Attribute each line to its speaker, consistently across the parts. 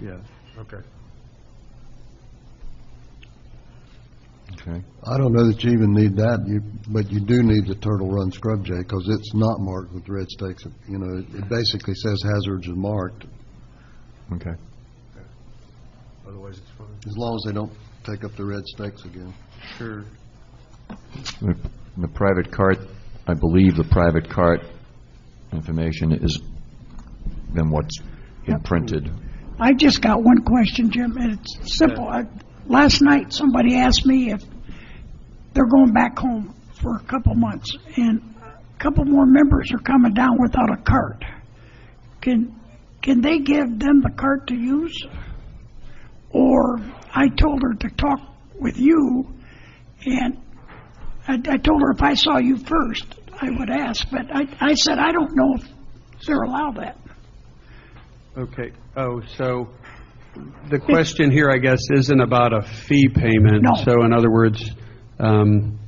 Speaker 1: yeah.
Speaker 2: Okay.
Speaker 3: Okay.
Speaker 1: I don't know that you even need that, you, but you do need the Turtle Run Scrub Jay, because it's not marked with red stakes, you know, it- it basically says hazards are marked,
Speaker 3: Okay.
Speaker 2: Otherwise, it's fine.
Speaker 1: as long as they don't take up the red stakes again.
Speaker 2: Sure.
Speaker 3: The the private cart, I believe the private cart information is then what's imprinted.
Speaker 4: I just got one question, Jim, and it's simple. I- Last night, somebody asked me if they're going back home for a couple months, and a couple more members are coming down without a cart. Can, can they give them the cart to use? Or I told her to talk with you, and I, I told her if I saw you first, I would ask, but I, I said, I don't know if they're allowed that.
Speaker 2: Okay, oh, so the question here, I guess, isn't about a fee payment.
Speaker 4: No.
Speaker 2: So in other words, um,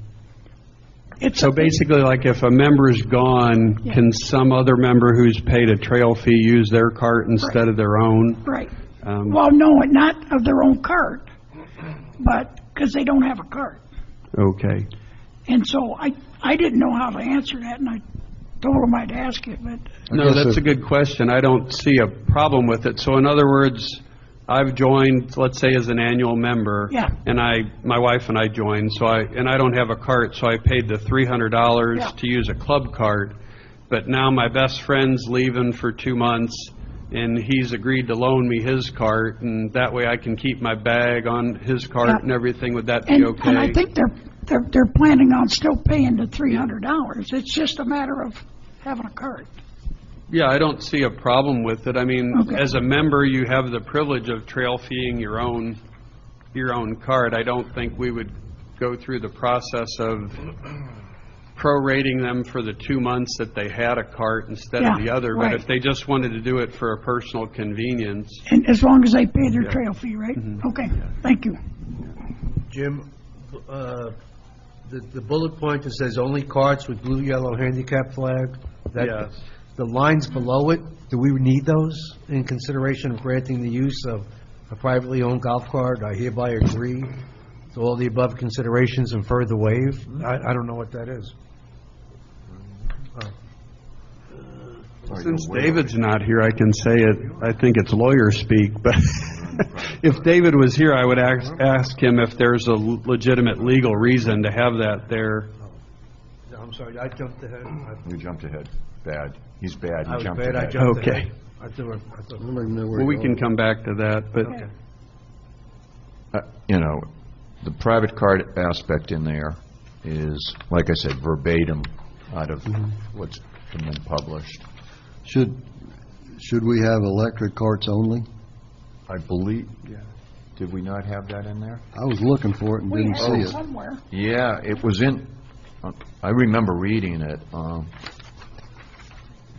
Speaker 4: It's
Speaker 2: so basically, like if a member's gone,
Speaker 4: Yeah.
Speaker 2: can some other member who's paid a trail fee use their cart instead of their own?
Speaker 4: Right.
Speaker 2: Um,
Speaker 4: Well, no, not of their own cart, but, because they don't have a cart.
Speaker 2: Okay,
Speaker 4: And so I, I didn't know how to answer that, and I told them I'd ask you, but
Speaker 2: no,
Speaker 1: guess
Speaker 2: that's
Speaker 1: if-
Speaker 2: a good question. I don't see a problem with it. So in other words, I've joined, let's say, as an annual member.
Speaker 4: Yeah.
Speaker 2: And I, my wife and I joined, so I, and I don't have a cart, so I paid the three hundred dollars
Speaker 4: Yeah.
Speaker 2: to use a club cart. But now my best friend's leaving for two months, and he's agreed to loan me his cart, and that way I can keep my bag on his cart
Speaker 4: Yeah.
Speaker 2: and everything. Would that be
Speaker 4: And,
Speaker 2: okay?
Speaker 4: and I think they're, they're, they're planning on still paying the three hundred dollars. It's just a matter of having a cart.
Speaker 2: Yeah, I don't see a problem with it. I mean,
Speaker 4: Okay.
Speaker 2: as a member, you have the privilege of trail feeing your own, your own card. I don't think we would go through the process of prorating them for the two months that they had a cart instead of
Speaker 4: Yeah,
Speaker 2: the other. But
Speaker 4: right.
Speaker 2: if they just wanted to do it for a personal convenience,
Speaker 4: And as long as they pay their trail fee, right? Okay, thank you.
Speaker 5: Jim, uh, the the bullet point that says only carts with blue, yellow handicap flag, that...
Speaker 2: Yes.
Speaker 5: The lines below it, do we need those in consideration of granting the use of a privately owned golf cart? I hereby agree to all the above considerations and further waive.
Speaker 3: Mm-hmm.
Speaker 5: I I don't know what that is.
Speaker 2: Since David's not here, I can say it, I think it's lawyer speak, but if David was here, I would ask, ask him if there's a legitimate legal reason to have that there.
Speaker 5: No, I'm sorry, I jumped ahead. I-
Speaker 3: You jumped ahead. Bad. He's bad.
Speaker 5: I
Speaker 3: You
Speaker 5: was
Speaker 3: jumped
Speaker 5: bad, I
Speaker 3: ahead.
Speaker 5: jumped
Speaker 2: Okay.
Speaker 5: ahead. I threw it- I
Speaker 1: I
Speaker 5: thought-
Speaker 1: don't even know where.
Speaker 2: Well, we
Speaker 1: it
Speaker 2: can
Speaker 1: goes.
Speaker 2: come back to that, but,
Speaker 3: Uh, You know, the private cart aspect in there is, like I said, verbatim out of
Speaker 5: Mm-hmm.
Speaker 3: what's been published.
Speaker 1: Should, should we have electric carts only?
Speaker 3: I believe, did we not have that in there?
Speaker 1: I was looking for it and
Speaker 4: We
Speaker 1: didn't
Speaker 4: have it
Speaker 1: see it.
Speaker 4: somewhere.
Speaker 3: Yeah, it was in, uh, I remember reading it, um,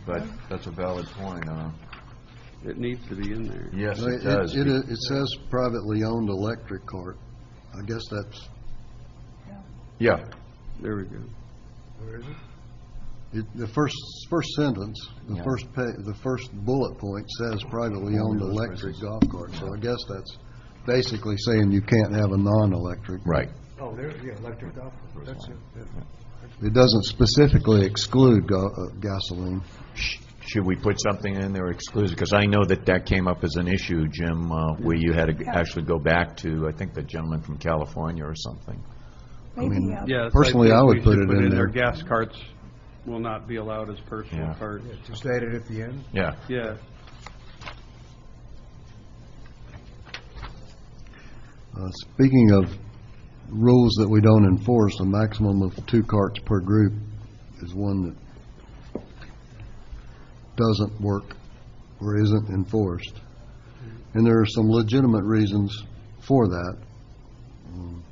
Speaker 3: but that's a valid point. uh,
Speaker 2: It needs to be in there.
Speaker 3: Yes,
Speaker 1: No,
Speaker 3: it does.
Speaker 1: It, it says privately owned electric cart. I guess that's,
Speaker 3: Yeah,
Speaker 2: There we go.
Speaker 1: it, the first, first sentence, the
Speaker 3: Yeah.
Speaker 1: first pa, the first bullet point says privately owned electric golf cart. So I guess that's basically saying you can't have a non-electric.
Speaker 3: right.
Speaker 5: Oh, there, yeah, electric golf cart, that's it. yeah.
Speaker 1: It doesn't specifically exclude go, uh, gasoline.
Speaker 3: Sh- Should we put something in there exclusive? Because I know that that came up as an issue, Jim, uh, where you had to actually go back to, I think, the gentleman from California or something.
Speaker 4: Maybe,
Speaker 1: mean,
Speaker 4: uh,
Speaker 2: Yes.
Speaker 1: Personally,
Speaker 2: think
Speaker 1: I would
Speaker 2: we
Speaker 1: put
Speaker 2: should
Speaker 1: it in there.
Speaker 2: Gas carts will not be allowed as personal
Speaker 3: Yeah.
Speaker 2: carts.
Speaker 5: Just add it at the end.
Speaker 3: Yeah.
Speaker 2: Yeah.
Speaker 1: Uh, Speaking of rules that we don't enforce, a maximum of two carts per group is one that doesn't work or isn't enforced. And there are some legitimate reasons for that. Um,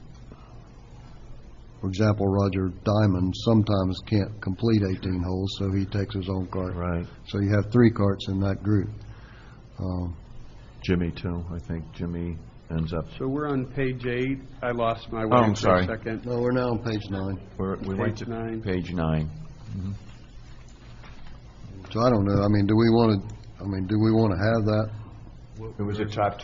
Speaker 1: For example, Roger Diamond sometimes can't complete 18 holes, so he takes his own cart.
Speaker 3: Right.
Speaker 1: So you have three carts in that group. Um,
Speaker 3: Jimmy, too, I think Jimmy ends up,
Speaker 2: So we're on page eight. I lost my
Speaker 3: Oh, I'm
Speaker 2: way for
Speaker 3: sorry.
Speaker 2: a second.
Speaker 1: No, we're now on page nine.
Speaker 3: we're- we went
Speaker 2: Page nine.
Speaker 3: to page nine.
Speaker 1: So I don't know, I mean, do we want to, I mean, do we want to have that?
Speaker 3: It was a top